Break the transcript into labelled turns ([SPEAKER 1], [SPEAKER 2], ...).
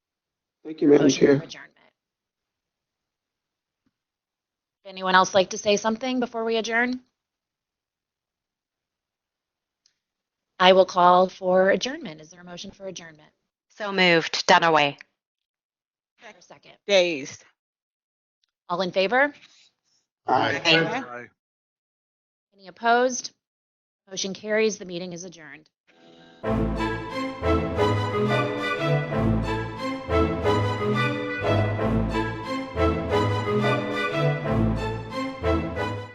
[SPEAKER 1] Thank you, Madam
[SPEAKER 2] Motion for
[SPEAKER 1] Chair.
[SPEAKER 2] adjournment. Would Anyone else like to say something before we adjourn? I will call for adjournment. Is there a motion for adjournment?
[SPEAKER 3] So moved. Dunaway.
[SPEAKER 2] Is there a second.
[SPEAKER 4] Days.
[SPEAKER 2] All in favor?
[SPEAKER 1] Aye.
[SPEAKER 3] Aye.
[SPEAKER 2] Any opposed? Motion carries. The meeting is adjourned.